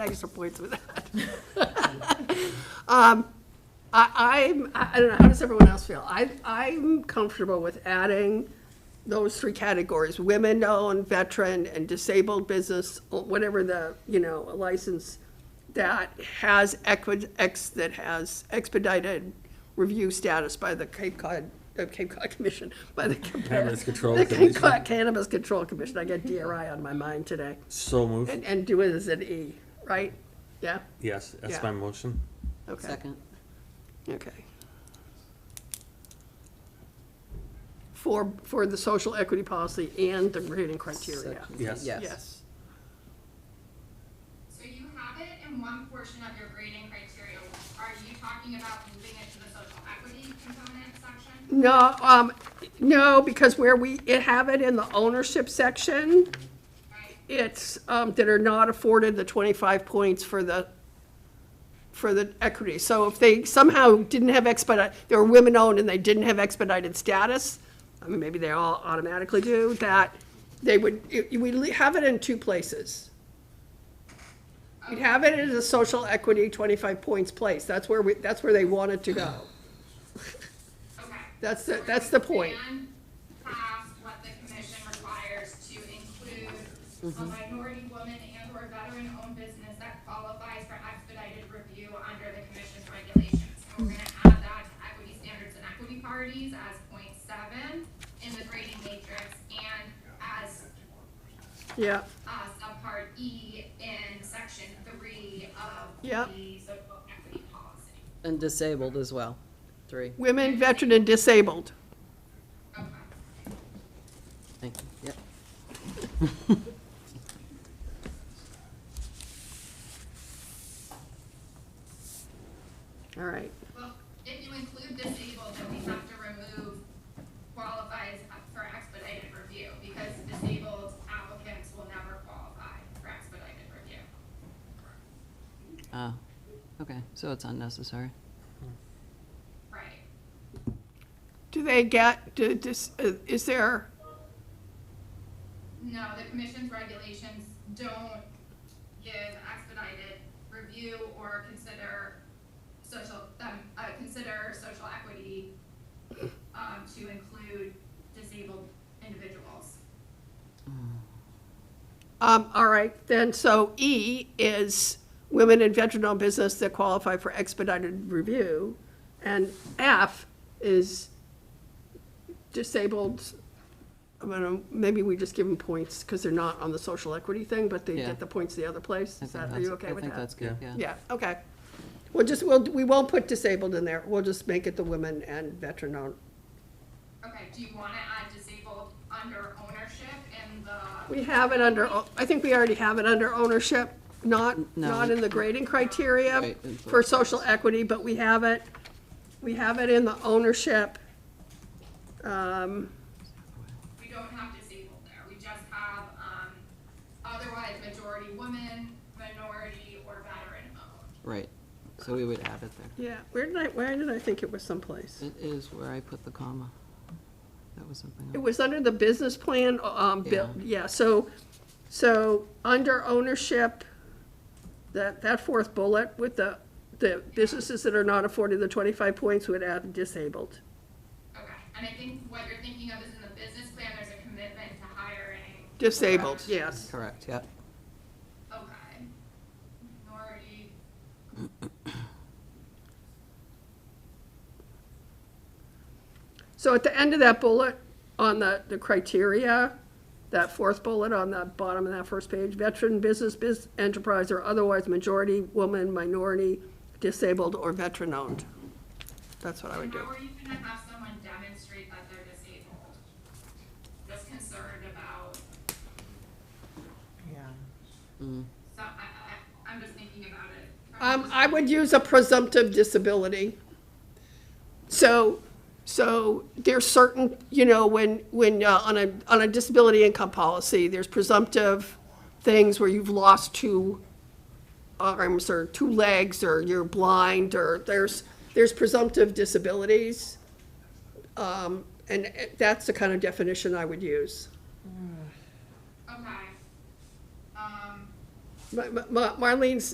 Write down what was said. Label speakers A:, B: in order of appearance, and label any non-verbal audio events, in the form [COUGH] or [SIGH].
A: extra points with that. [LAUGHS] Um, I, I'm, I I don't know, how does everyone else feel? I, I'm comfortable with adding those three categories, women-owned, veteran, and disabled business, or whatever the, you know, a license that has equi, ex, that has expedited review status by the Cape Cod, uh, Cape Cod Commission, by the.
B: Cannabis Control
A: The Cape
B: Commission.
A: Cod Cannabis Control Commission, I got DRI on my mind today.
B: So
A: And,
B: moved,
A: and do it as an E, right? Yeah?
B: yes, that's
A: Yeah.
B: my motion.
A: Okay,
C: Second.
A: okay. For, for the social equity policy and the grading criteria.
C: Second.
B: Yes.
A: Yes.
D: So you have it in one portion of your grading criteria. Are you talking about moving it to the social equity component section?
A: No, um, no, because where we it have it in the ownership section,
D: Right?
A: it's, um, that are not afforded the twenty-five points for the, for the equity. So if they somehow didn't have expedite, they were women-owned and they didn't have expedited status, I mean, maybe they all automatically do, that they would, it- we li- have it in two places. We'd have it as a social equity twenty-five points place, that's where we, that's where they want it to go.
D: Okay.
A: That's the, that's the point.
D: Pass what the commission requires to include a
A: Mm-hmm.
D: minority woman and or veteran owned business that qualifies for expedited review under the commission's regulations. And we're gonna add that to equity standards and equity parties as point seven in the grading matrix and as
A: Yeah,
D: uh, subpart E in section three of
A: Yep.
D: the social equity policy.
C: And disabled as well, three,
A: women, veteran, and disabled.
D: Okay.
C: thank you, yep.
A: All right,
D: Well, if you include disabled, then we have to remove qualifies for expedited review, because disabled applicants will never qualify for expedited review.
C: Ah, okay, so it's unnecessary.
D: Right.
A: do they get, do, dis- uh, is there?
D: No, the commission's regulations don't give expedited review or consider social, um, uh, consider social equity, um, to include disabled individuals.
A: Um, all right, then, so E is women in veteran-owned business that qualify for expedited review, and F is disabled, I don't know, maybe we just give them points, because they're not on the social equity thing, but they
C: Yeah.
A: get the points the other place,
C: I
A: is
C: think
A: that, are
C: that's-
A: you okay with
C: I think
A: that?
C: that's good, yeah.
A: Yeah, okay. We'll just, we'll, we won't put disabled in there, we'll just make it the women and veteran-owned.
D: Okay, do you wanna add disabled under ownership in the,
A: We have it under, o- I think we already have it under ownership, not,
C: No.
A: not in the grading criteria
C: Right, in both
A: for social equity, but we have it, we have it in the ownership. Um,
D: we don't have disabled there, we just have, um, otherwise majority woman, minority, or veteran owned.
C: Right, so we would add it there.
A: Yeah, where did I, where did I think it was someplace?
C: It is where I put the comma. That was something
A: It
C: else.
A: was under the business plan, um, bill, yeah, so, so under ownership, that, that fourth bullet with the, the businesses that are not afforded the twenty-five points would add disabled.
D: Okay, and I think what you're thinking of is in the business plan, there's a commitment to hiring.
A: Disabled, yes.
C: Correct, yep.
D: Okay. Minority.
A: So at the end of that bullet, on the, the criteria, that fourth bullet on the bottom of that first page, veteran, business, biz, enterprise, or otherwise majority, woman, minority, disabled, or veteran-owned. That's what I would
D: And
A: do.
D: How are you gonna have someone demonstrate that they're disabled? Just concerned about, so, I, I, I'm just thinking about it. from-
A: Um, I would use a presumptive disability. So, so there's certain, you know, when, when, uh, on a, on a disability income policy, there's presumptive things where you've lost two arms or two legs or you're blind or there's, there's presumptive disabilities. Um, and uh, that's the kind of definition I would use.
D: Okay. Um.
A: Ma- Ma- Ma- Marlene's